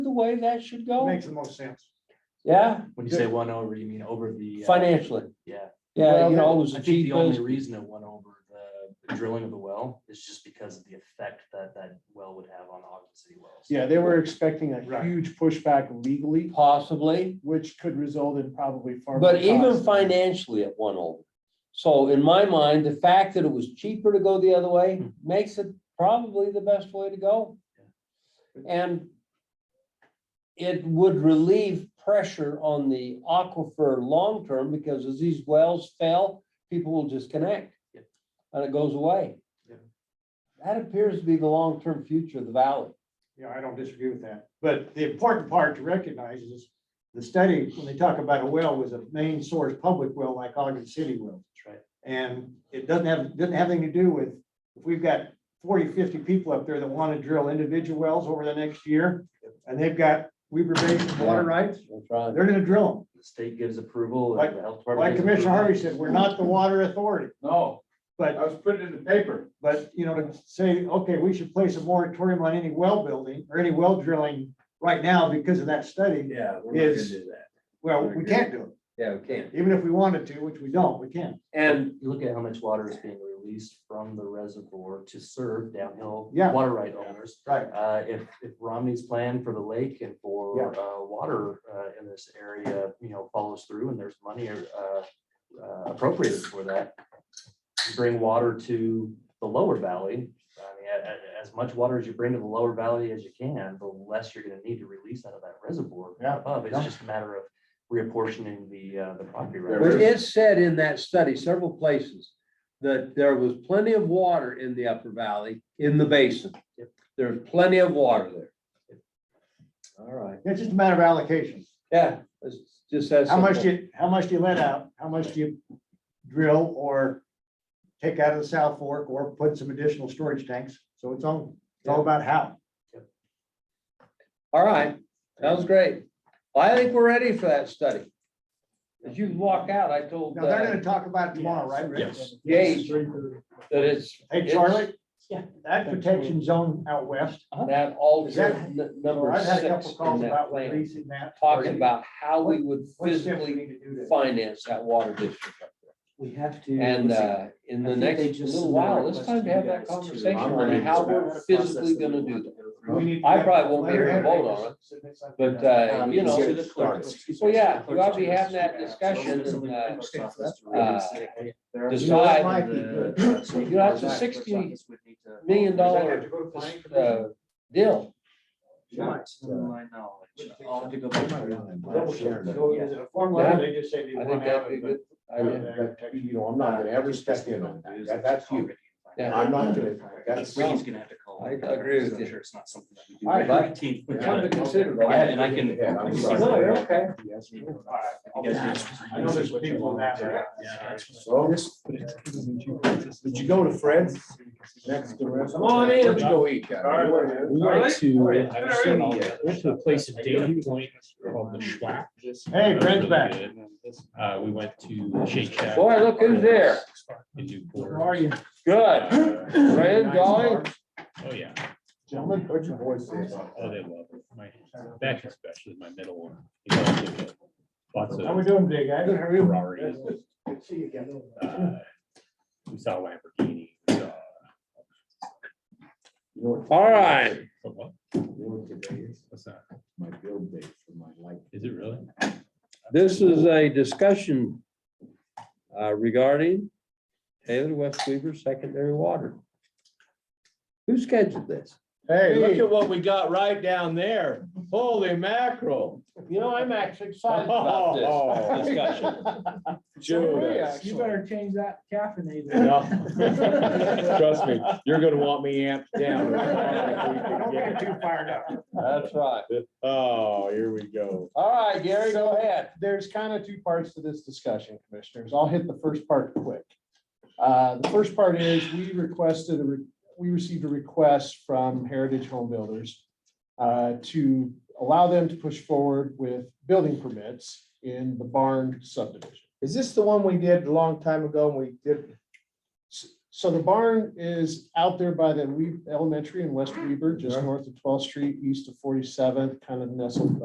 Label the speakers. Speaker 1: the way that should go?
Speaker 2: Makes the most sense.
Speaker 1: Yeah,
Speaker 3: When you say one over, you mean over the. uh,
Speaker 1: financially.
Speaker 3: Yeah.
Speaker 1: Yeah, you know, it
Speaker 3: I
Speaker 1: was the
Speaker 3: think the only
Speaker 1: cheapest.
Speaker 3: reason it went over the- the drilling of the well is just because of the effect that that well would have on Ogden City wells.
Speaker 4: Yeah, they were expecting a
Speaker 2: Right.
Speaker 4: huge pushback legally,
Speaker 1: Possibly,
Speaker 4: which could result in probably far. more
Speaker 1: but even
Speaker 4: costs.
Speaker 1: financially it went over. So in my mind, the fact that it was cheaper to go the other
Speaker 3: Hmm.
Speaker 1: way makes it probably the best way to go. And it would relieve pressure on the aquifer long-term because as these wells fail, people will disconnect.
Speaker 3: Yep.
Speaker 1: And it goes away.
Speaker 2: Yep.
Speaker 1: That appears to be the long-term future of the valley.
Speaker 2: Yeah, I don't disagree with that. But the important part to recognize is the study, when they talk about a well, was a main source public well like Ogden City well.
Speaker 3: That's right.
Speaker 2: And it doesn't have, doesn't have anything to do with, if we've got 40, 50 people up there that want to drill individual wells over the next year, and they've got Weaver Basin water rights,
Speaker 1: That's right.
Speaker 2: they're gonna drill
Speaker 3: The state gives approval. and
Speaker 2: Like-
Speaker 3: the health
Speaker 2: them.
Speaker 3: department
Speaker 2: Like
Speaker 3: gives
Speaker 2: Commissioner
Speaker 3: approval.
Speaker 2: Harvey said, we're not the water authority,
Speaker 5: No, I
Speaker 2: but
Speaker 5: was putting it in the paper.
Speaker 2: But, you know, to say, okay, we should place a moratorium on any well building or any well drilling right now because of that study,
Speaker 5: Yeah.
Speaker 2: not gonna Is- do
Speaker 5: that.
Speaker 2: well, we can't do
Speaker 5: Yeah, we can.
Speaker 2: it. Even if we wanted to, which we don't, we can't.
Speaker 5: And
Speaker 3: You look at how much water is being released from the reservoir to serve downhill
Speaker 2: Yeah.
Speaker 3: water right owners.
Speaker 2: Right.
Speaker 3: Uh, if, if Romney's plan for the lake and for, uh, water, uh, in this area, you know, follows through and there's money, uh, uh, appropriated for that. you Bring water to the lower valley. I mean, a- a- as much water as you bring to the lower valley as you can, the less you're gonna need to release out of that reservoir.
Speaker 2: Yeah.
Speaker 3: Above, it's
Speaker 2: Yeah.
Speaker 3: just a matter of reapportioning the, uh, the property.
Speaker 5: There
Speaker 1: But
Speaker 3: rights.
Speaker 5: is-
Speaker 1: it said in that study, several places, that there was plenty of water in the upper valley, in the basin.
Speaker 3: Yep.
Speaker 1: There's plenty of water there. All right.
Speaker 2: It's just a matter of allocation.
Speaker 1: Yeah, it's just that.
Speaker 2: How much do
Speaker 1: simple.
Speaker 2: you, how much do you let out? How much do you drill or take out of the South Fork or put some additional storage tanks? So it's all, it's all about how.
Speaker 1: All right, that was great. Well, I think we're ready for that study. As you walk out, I told
Speaker 2: Now, they're
Speaker 1: uh,
Speaker 2: gonna talk about it tomorrow, right? Rick?
Speaker 3: Yes.
Speaker 1: Gage that it's.
Speaker 2: Hey,
Speaker 1: it's
Speaker 2: Charlie?
Speaker 3: Yeah.
Speaker 2: That protection zone out west,
Speaker 1: That
Speaker 2: Is that-
Speaker 1: alter n- number
Speaker 2: I've had a
Speaker 1: six
Speaker 2: couple calls
Speaker 1: in that
Speaker 2: about
Speaker 1: plan,
Speaker 2: releasing that.
Speaker 1: talking about how we would
Speaker 2: What steps we
Speaker 1: physically
Speaker 2: need to do to-
Speaker 1: finance that water district up there.
Speaker 3: We have to.
Speaker 1: And
Speaker 3: let's see.
Speaker 1: uh, in
Speaker 3: I
Speaker 1: the
Speaker 3: think they
Speaker 1: next
Speaker 3: just
Speaker 1: little
Speaker 3: submitted a
Speaker 1: while, it's
Speaker 3: request
Speaker 1: time to
Speaker 3: you
Speaker 1: have that
Speaker 3: guys
Speaker 1: conversation
Speaker 3: I'm
Speaker 1: on
Speaker 3: ready
Speaker 1: how
Speaker 3: to
Speaker 1: we're
Speaker 3: start.
Speaker 1: physically
Speaker 3: Process that we
Speaker 1: gonna do
Speaker 3: want
Speaker 1: that.
Speaker 3: to go through.
Speaker 2: We need to
Speaker 1: I
Speaker 2: get
Speaker 1: probably won't be
Speaker 2: letter
Speaker 1: able to vote on
Speaker 2: headed.
Speaker 1: it, But, uh,
Speaker 3: Um,
Speaker 1: you know,
Speaker 3: to the clerk.
Speaker 1: so yeah, we ought to be having that discussion and, uh, decide You know, that's a $60 million dollar uh, deal.
Speaker 2: Double check. So is it a form letter? They just say they
Speaker 1: I
Speaker 2: want
Speaker 1: think
Speaker 2: to have
Speaker 1: that'd be
Speaker 2: it,
Speaker 1: a good.
Speaker 2: but-
Speaker 1: idea.
Speaker 4: You know, I'm not gonna ever step in on that. That- That's you.
Speaker 1: Yeah.
Speaker 4: I'm not gonna, that's.
Speaker 3: Ricky's gonna have to call.
Speaker 1: I agree with
Speaker 3: I'm
Speaker 1: you.
Speaker 3: Sure, it's not something. that we do.
Speaker 1: All right, bud.
Speaker 3: Routine.
Speaker 1: Come to consider.
Speaker 3: Yeah, And I can.
Speaker 4: Yeah, I'm
Speaker 3: You
Speaker 4: sorry.
Speaker 3: guys
Speaker 2: No, you're okay.
Speaker 3: can-
Speaker 2: All right. I know there's people that are.
Speaker 3: Yeah.
Speaker 4: So. Did you go to Fred's? Next to. Come
Speaker 5: on in.
Speaker 4: Where'd you go eat? Kat?
Speaker 5: We went to, I was in, uh, went to a place in Dayton Point called the Schwack.
Speaker 2: Hey, Brent's back.
Speaker 5: Uh, we went to Shake Shack.
Speaker 1: Boy, look who's there.
Speaker 5: And do pork.
Speaker 2: Where are you?
Speaker 1: Good.
Speaker 5: Uh,
Speaker 1: Fred, Dolly,
Speaker 5: Oh, yeah.
Speaker 4: Gentlemen, what'd your boys say?
Speaker 5: Oh, they love it. My, Beck especially, my middle one. He loves it. uh, Lots
Speaker 2: How
Speaker 5: of
Speaker 2: we doing today, guys?
Speaker 5: Ferraris.
Speaker 2: Good to see you again.
Speaker 5: uh, We saw Lamborghini. we saw-
Speaker 1: all right.
Speaker 5: What, what?
Speaker 4: You know what today is?
Speaker 5: What's that?
Speaker 4: My build date for my life.
Speaker 5: Is it really?
Speaker 1: This is a discussion uh, regarding Taylor West Weaver secondary water. Who scheduled this?
Speaker 2: Hey,
Speaker 6: Look at what we got right down there. Holy mackerel.
Speaker 1: You know, I'm actually excited
Speaker 6: Oh, discussion. Judas.
Speaker 4: You better change that caffeinated.
Speaker 6: No. Trust me, you're gonna want me amped
Speaker 2: Don't
Speaker 6: down.
Speaker 2: get too fired up.
Speaker 1: That's right.
Speaker 6: Oh, here we go.
Speaker 1: All right, Gary, go ahead.
Speaker 4: There's kind of two parts to this discussion, commissioners. I'll hit the first part quick. Uh, The first part is we requested, a re- we received a request from Heritage Home Builders uh, to allow them to push forward with building permits in the barn subdivision.
Speaker 7: Is this the one we did a long time ago and we did,
Speaker 4: S-
Speaker 2: So the barn is out there by the Wee- elementary in West Weber, just north of twelfth street, east of forty-seventh, kind of nestled